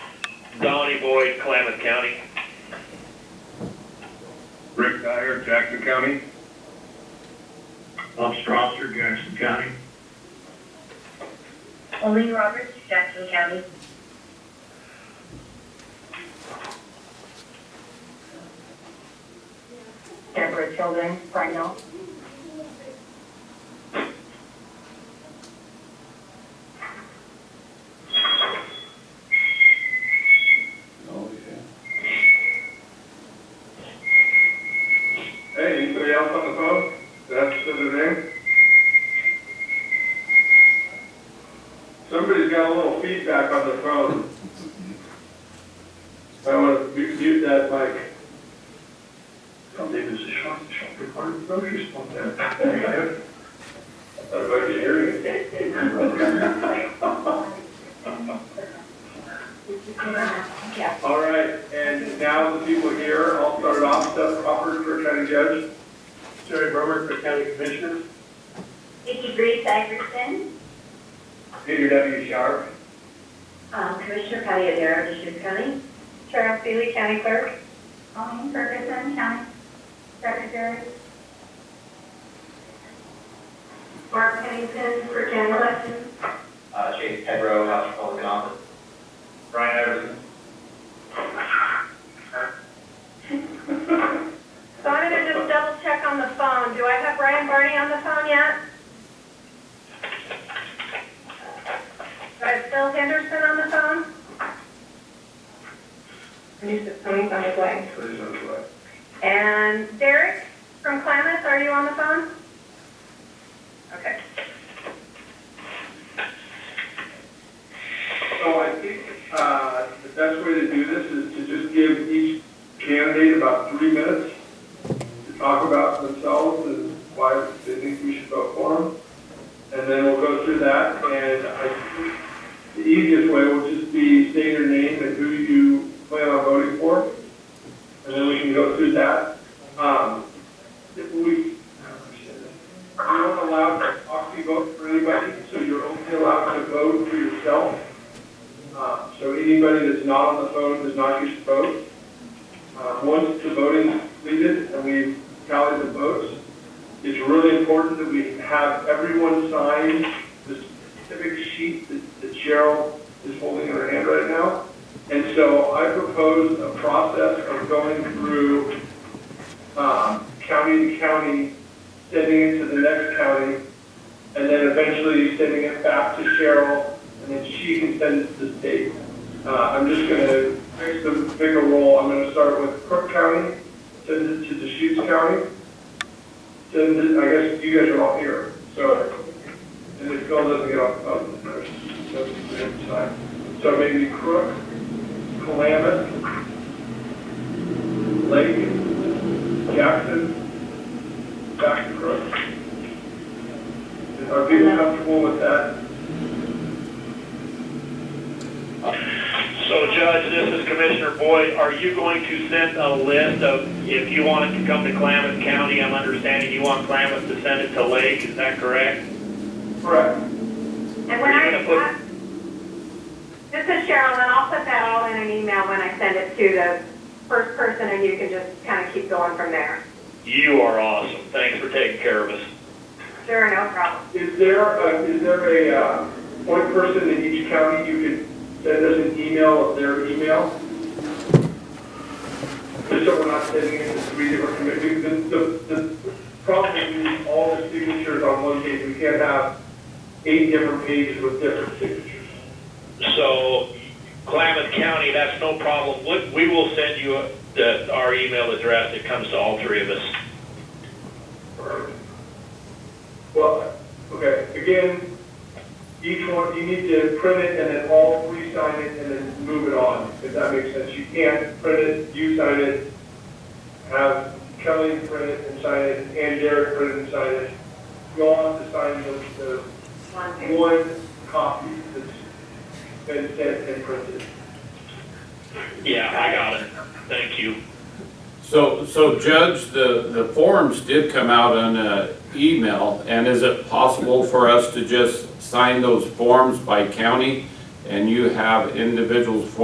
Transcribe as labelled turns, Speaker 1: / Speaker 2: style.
Speaker 1: Donnie Boyd, Klamath County.
Speaker 2: Rick Dyer, Jackson County. Bob Strasser, Jackson County.
Speaker 3: Eileen Roberts, Jackson County. Deborah Tilden, Rhino.
Speaker 4: Oh, yeah.
Speaker 2: Hey, anybody else on the phone? That's the name. Somebody's got a little feedback on the phone. I want to mute that mic. Something is a short, short recording, no response there. I might be hearing
Speaker 3: Yeah.
Speaker 2: All right, and now the people here, I'll start it off, Seth Crawford for county judge. Jerry Brummer for county commissioner.
Speaker 3: Vicky Reese Iverson,
Speaker 2: Peter W. Sharp.
Speaker 3: um, Commissioner Payadero, Deschutes County. Cheryl Seeley, County Clerk. Colleen Ferguson, County Secretary. Mark Pennington for County Elections.
Speaker 5: Uh, Chase Pedro, House Republican Office.
Speaker 2: Brian Everson.
Speaker 6: So I'm gonna just double check on the phone. Do I have Brian Barney on the phone yet? Do I have Phil Henderson on the phone? New Tony's on his way.
Speaker 2: Please, on the way.
Speaker 6: And Derek from Klamath, are you on the phone? Okay.
Speaker 2: So I think, uh, the best way to do this is to just give each candidate about three minutes to talk about themselves and why they think we should vote for them. And then we'll go through that, and I, think the easiest way will just be say your name and who you plan on voting for. And then we can go through that. Um, if we, you don't allow proxy vote for anybody, so you're only allowed to vote for yourself. Uh, So anybody that's not on the phone does not get to vote. Uh, Once the voting's completed and we tally the votes, it's really important that we have everyone sign the specific sheet that- that Cheryl is holding in her hand right now. And so I propose a process of going through um, county to county, sending it to the next county, and then eventually sending it back to Cheryl and then she can send it to the state. Uh, I'm just gonna fix the bigger role, I'm gonna start with Crook County, send it to Deschutes County, send it, I guess you guys are all here, so, and if Phil doesn't get off, oh, there's, that's the other side. So maybe Crook, Klamath, Lake, Jackson, back to Crook. Are people comfortable with that?
Speaker 1: So Judge, this is Commissioner Boyd. Are you going to send a list of, if you want it to come to Klamath County, I'm understanding you want Klamath to send it to Lake, is that correct?
Speaker 2: Correct.
Speaker 6: And when
Speaker 1: Are you
Speaker 6: I,
Speaker 1: gonna put-
Speaker 6: I- this is Cheryl, and I'll put that all in an email when I send it to the first person, and you can just kind of keep going from there.
Speaker 1: You are awesome. Thanks for taking care of us.
Speaker 6: Sure, no problem.
Speaker 2: Is there a, is there a, uh, point person in each county you could send us an email of their email? Just so we're not sending it to three different committees, the, the, the problem is all the signatures on one page, we can't have eight different pages with different signatures.
Speaker 1: So Klamath County, that's no problem. We- We will send you uh, the- our email address. It comes to all three of us.
Speaker 2: Well, okay, again, each one, you need to print it and then all three sign it and then move it on, if that makes sense. You can't print it, you sign it, have Kelly print it and sign it, and Derek print it and sign it. You all have to sign the,
Speaker 6: One,
Speaker 2: the
Speaker 6: two.
Speaker 2: one copy that's been sent and printed.
Speaker 1: Yeah, I got it. Thank you.
Speaker 4: So, so Judge, the, the forms did come out on a email, and is it possible for us to just sign those forms by county? And you have individuals' forms